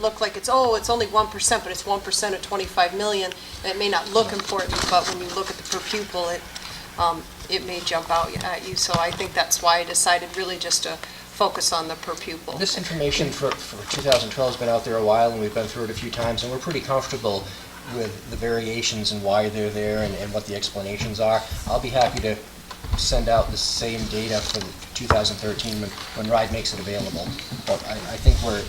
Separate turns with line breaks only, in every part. look like it's, oh, it's only 1%, but it's 1% of 25 million, and it may not look important, but when you look at the per pupil, it, um, it may jump out at you. So I think that's why I decided really just to focus on the per pupil.
This information for, for 2012 has been out there a while, and we've been through it a few times, and we're pretty comfortable with the variations and why they're there and, and what the explanations are. I'll be happy to send out the same data for 2013 when, when RIDE makes it available. But I, I think we're,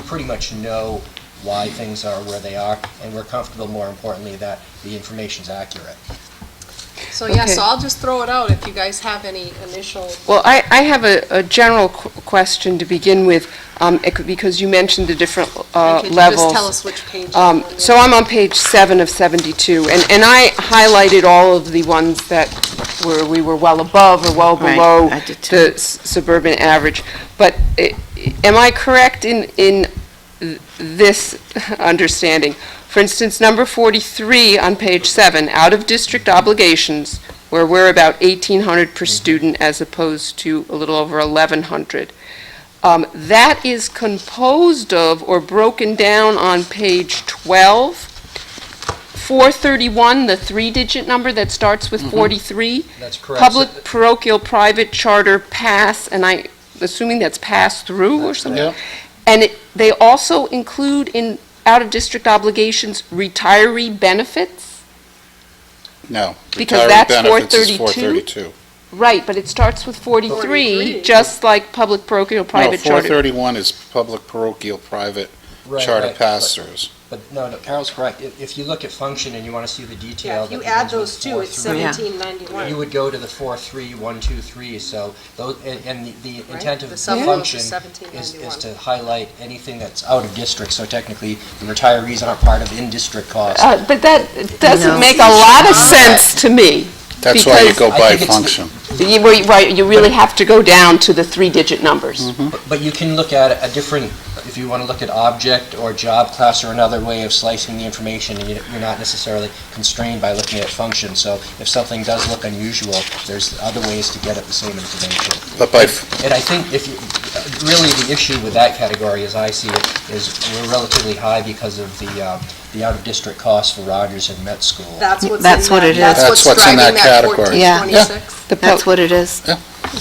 we pretty much know why things are where they are, and we're comfortable, more importantly, that the information's accurate.
So yeah,
Okay.
so I'll just throw it out if you guys have any initial,
Well, I, I have a, a general qu- question to begin with, um, ec- because you mentioned the different uh,
if you could just
levels.
tell us which page. you're
Um,
on.
So I'm on page seven of 72, and, and I highlighted all of the ones that were, we were well above or well
Right,
below
I did
the s- suburban average. But i- i- am I correct in, in th- this understanding? For instance, number 43 on page seven, out-of-district obligations, where we're about 1,800 per student as opposed to a little over 1,100. Um, That is composed of or broken down on page 12, 431, the three-digit number that starts
Mm-hmm.
with 43.
That's correct.
Public, parochial, private, charter, pass, and I, assuming that's pass-through or
That's
something? And it- they also include in out-of-district obligations retiree benefits?
No.
Because
Retiree
that's
benefits is
432? Right, but it starts with
43.
43, just like public, parochial,
No,
private,
four
charter.
thirty-one is public parochial private
Right,
charter
right, but-
pass-throughs.
But no, no, Carol's correct. If, if you look at function and you want to see the detail.
Yeah, if you
that
add
begins with
those two, it's
four through-
Yeah.
1791.
You would go to the four, three, one, two, three, so those, and, and the- the intent of
The
the
sub goes to
function is, is
1791.
to highlight anything that's out of district, so technically, the retirees aren't part of in-district costs.
Uh, But that
No.
doesn't make a lot of sense to me.
That's why you
Because
go
I
by
think it's the-
function.
You- well, you- Right, you really have to go down to the three-digit numbers.
But- But you can look at a different, if you want to look at object or job class or another way of slicing the information, and you- you're not necessarily constrained by looking at function, so if something does look unusual, there's other ways to get at the same information.
But by, f-
And I think if, you really, the issue with that category, as I see it, is we're relatively high because of the, uh, the out-of-district costs for Rogers and Met School.
That's what's in that.
That's what it is.
That's what's
driving
in that category.
Yeah.
1426.
The po-
That's what it is.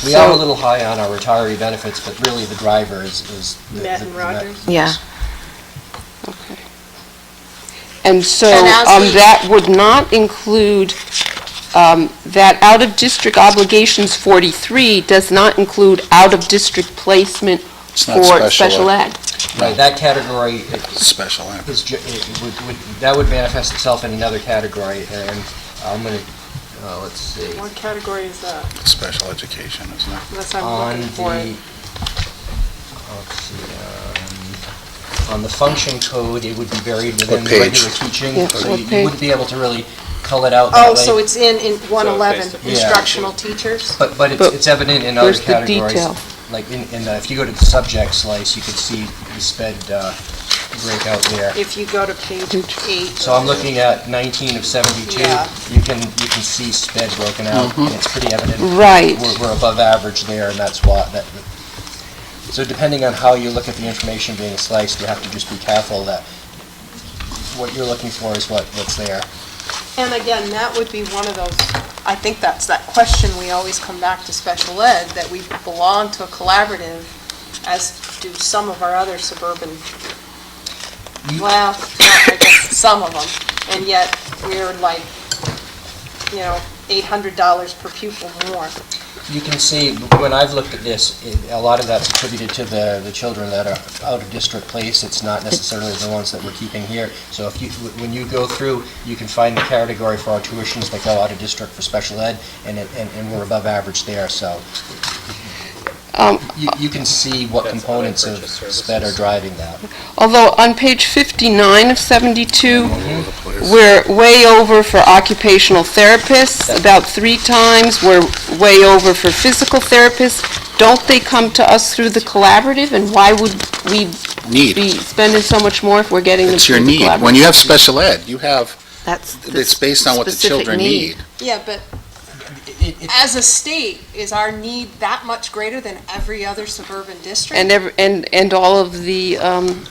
We are a
so-
little high on our retiree benefits, but really the driver is, is. the-
Met
the-
and
the
Rogers?
Yeah.
And so
And as
um,
we-
that would not include, um, that out-of-district obligations 43 does not include out-of-district placement
It's not
for
special
special
ed.
ed.
Right, that category
special ed.
is, ju- it would, would, that would manifest itself in another category, and I'm gonna, uh, let's see.
What category is that?
special education, isn't it?
Unless I'm
on
looking for
the,
it.
let's see, um, on the function code, it would be buried within the
page?
regular teaching,
Yeah,
so
what
you you
page?
wouldn't be able to really cull it out that
Oh, so
way.
it's in, in 111,
Yeah.
instructional teachers?
But, but it's
But
it's evident in other
where's the
categories.
detail?
Like, in, in, uh, if you go to the subject slice, you can see the sped uh, breakout there.
If you go to page eight.
So I'm looking at 19 of 72.
Yeah.
You can, you can see sped broken out, and it's pretty evident.
Right.
We're, we're above average there, and that's why, that, so depending on how you look at the information being sliced, you have to just be careful that what you're looking for is what, what's there.
And again, that would be one of those, I think that's that question we always come back to special ed, that we belong to a collaborative, as do some of our other suburban,
You-
well, I guess some of them, and yet we're like, you know, $800 per pupil more.
You can see, when I've looked at this, it- a lot of that's attributed to the, the children that are out of district place. It's not necessarily the ones that we're keeping here. So if you, when you go through, you can find the category for our tuitions that go out of district for special ed, and, it- and, and we're above average there, so.
Um,
You, you can see what components of sped are driving that.
Although on page 59 of 72, we're way over for occupational therapists, about three times. We're way over for physical therapists. Don't they come to us through the collaborative? And why would we be
Need.
spending so much more if we're getting them
It's your
through the
need. When
collaborative?
you have special ed, you have,
That's. the
it's based on what the
specific
children need.
Yeah, but
It- it-
as a state, is our need that much greater than every other suburban district?
And, ev- and, and all of the um,